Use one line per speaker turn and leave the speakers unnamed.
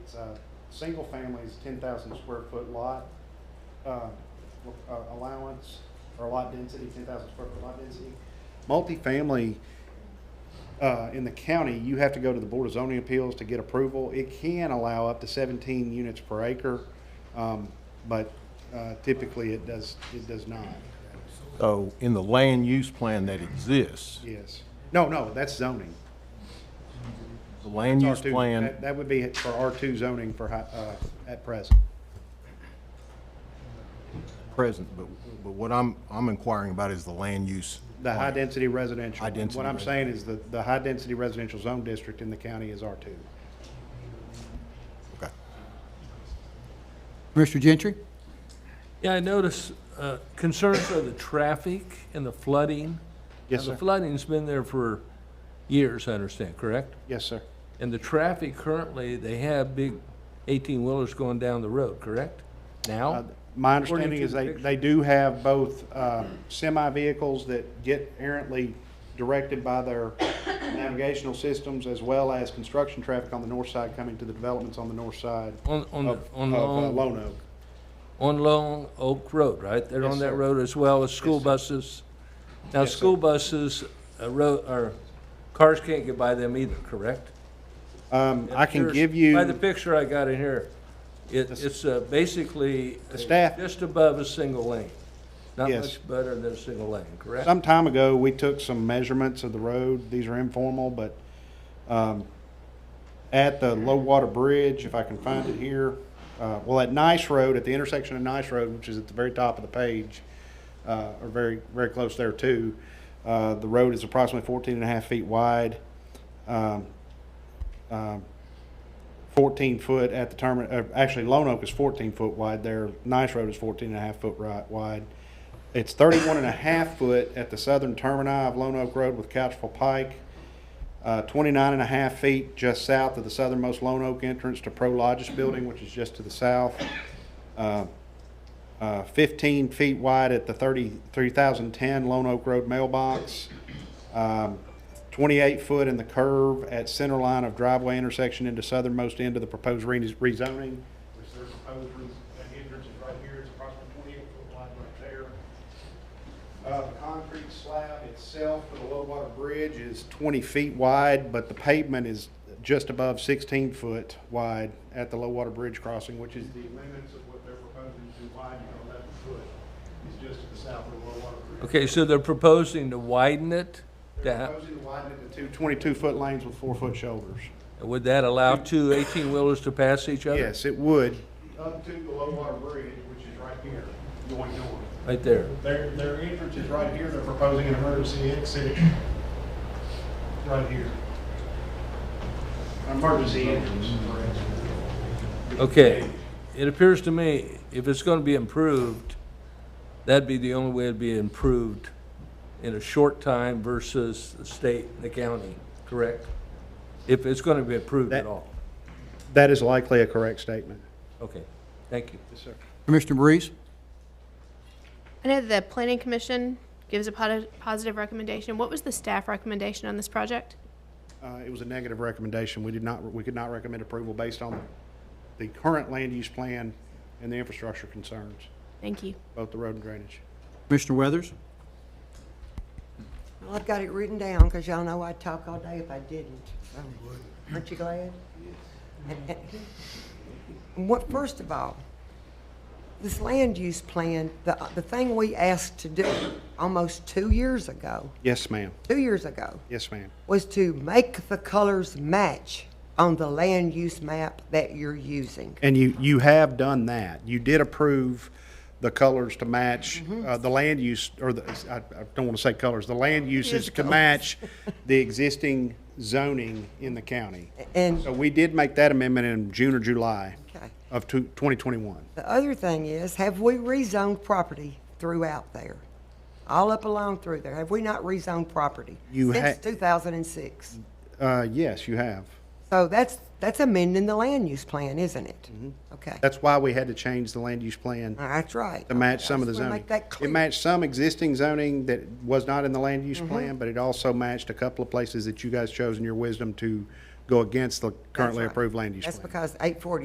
It's a single family is ten thousand square foot lot, uh, uh, allowance or lot density, ten thousand square foot lot density. Multifamily, uh, in the county, you have to go to the Board of Zoning Appeals to get approval. It can allow up to seventeen units per acre, um, but uh, typically it does, it does not.
So Oh, in the land use plan that exists,
Yes. No, no, that's zoning.
the land use
R2.
plan,
That- That would be for R two zoning for, hi- uh, at present.
present, but, but what I'm, I'm inquiring about is the land use.
The
plan.
high-density residential.
High-density
What I'm saying is that the high-density residential zone district in the county is R2.
Okay.
Commissioner Gentry?
Yeah, I notice uh, concerns of the traffic and the flooding.
Yes,
Now,
sir.
The flooding's been there for years, I understand, correct?
Yes, sir.
And the traffic currently, they have big 18-wheelers going down the road, correct?
Uh,
Now?
My
According
understanding
to
is
the
they,
picture.
they do have both uh, semi-vehicles that get errantly directed by their navigational systems as well as construction traffic on the north side coming to the developments on the north side
On, on,
of
on
of, uh,
Long,
Lone Oak.
on Long Oak Road, right? They're
Yes,
on
sir.
that road as well as school
sir.
buses. Now,
Yes, sir.
school buses, uh, road, or cars can't get by them either, correct?
Um, I can
There's-
give you.
By the picture I got in here, it, it's uh, basically. uh,
staff-
Just above a single lane. Not
Yes.
much better than a single lane, correct?
Some time ago, we took some measurements of the road. These are informal, but um, at the low water bridge, if I can find it here, uh, well, at Nice Road, at the intersection of Nice Road, which is at the very top of the page, uh, or very, very close there too, uh, the road is approximately 14 and a half feet wide, um, um, 14 foot at the terminal, uh, actually, Lone Oak is 14 foot wide there. Nice Road is 14 and a half foot ri- wide. It's 31 and a half foot at the southern termini of Lone Oak Road with Couchville Pike. Uh, 29 and a half feet just south of the southernmost Lone Oak entrance to Prologis Building, which is just to the south. Uh, uh, 15 feet wide at the 33,010 Lone Oak Road mailbox. Um, 28 foot in the curve at center line of driveway intersection into southernmost end of the proposed re- rezoning. Which their proposed re- uh, entrance is right here, it's approximately 28 foot wide right there. Uh, the concrete slab itself for the low water bridge is 20 feet wide, but the pavement is just above 16 foot wide at the low water bridge crossing, which is the limits of what they're proposing to widen to 11 foot, is just to the south of the low water bridge.
Okay, so they're proposing to widen it? to
They're
ha-
proposing to widen it to two 22-foot lanes with four-foot shoulders.
Would that allow two 18-wheelers to pass each other?
Yes, it would. Up to the low water bridge, which is right here, going north.
Right there.
Their, their entrance is right here, they're proposing an emergency exit right here. Emergency entrance.
Okay, it appears to me, if it's gonna be improved, that'd be the only way it'd be improved in a short time versus the state and the county, correct? If it's gonna be approved at
That-
all.
That is likely a correct statement.
Okay, thank you.
Yes, sir.
Commissioner Breeze?
I know the planning commission gives a poti- positive recommendation. What was the staff recommendation on this project?
Uh, it was a negative recommendation. We did not, we could not recommend approval based on the current land use plan and the infrastructure concerns,
Thank you.
both the road and drainage.
Commissioner Weathers?
Well, I've got it written down, because y'all know I'd talk all day if I didn't. so. Aren't you glad? What, first of all, this land use plan, the, the thing we asked to do almost two years ago,
Yes, ma'am.
two years ago,
Yes, ma'am.
was to make the colors match on the land use map that you're using.
And you, you have done that. You did approve the colors to match, uh, the land use, or the, I, I don't want to say colors, the land uses to match the existing zoning in the county.
And
So we did make that amendment in June or July
Okay.
of two, twenty twenty-one.
The other thing is, have we rezoned property throughout there? All up along through there, have we not rezoned property?
You ha-
Since two thousand and six.
Uh, yes, you have.
So that's, that's amending the land use plan, isn't it? Okay,
Mm-hmm. That's why we had to change the land use plan
All right, that's right.
to match
Okay, I
some of the
just wanna
zoning.
Make that clear.
It matched some existing zoning that was not in the land
Mm-hmm.
use plan, but it also matched a couple of places that you guys chose in your wisdom to go against the
That's
currently
right.
approved land use plan.
That's because eight forty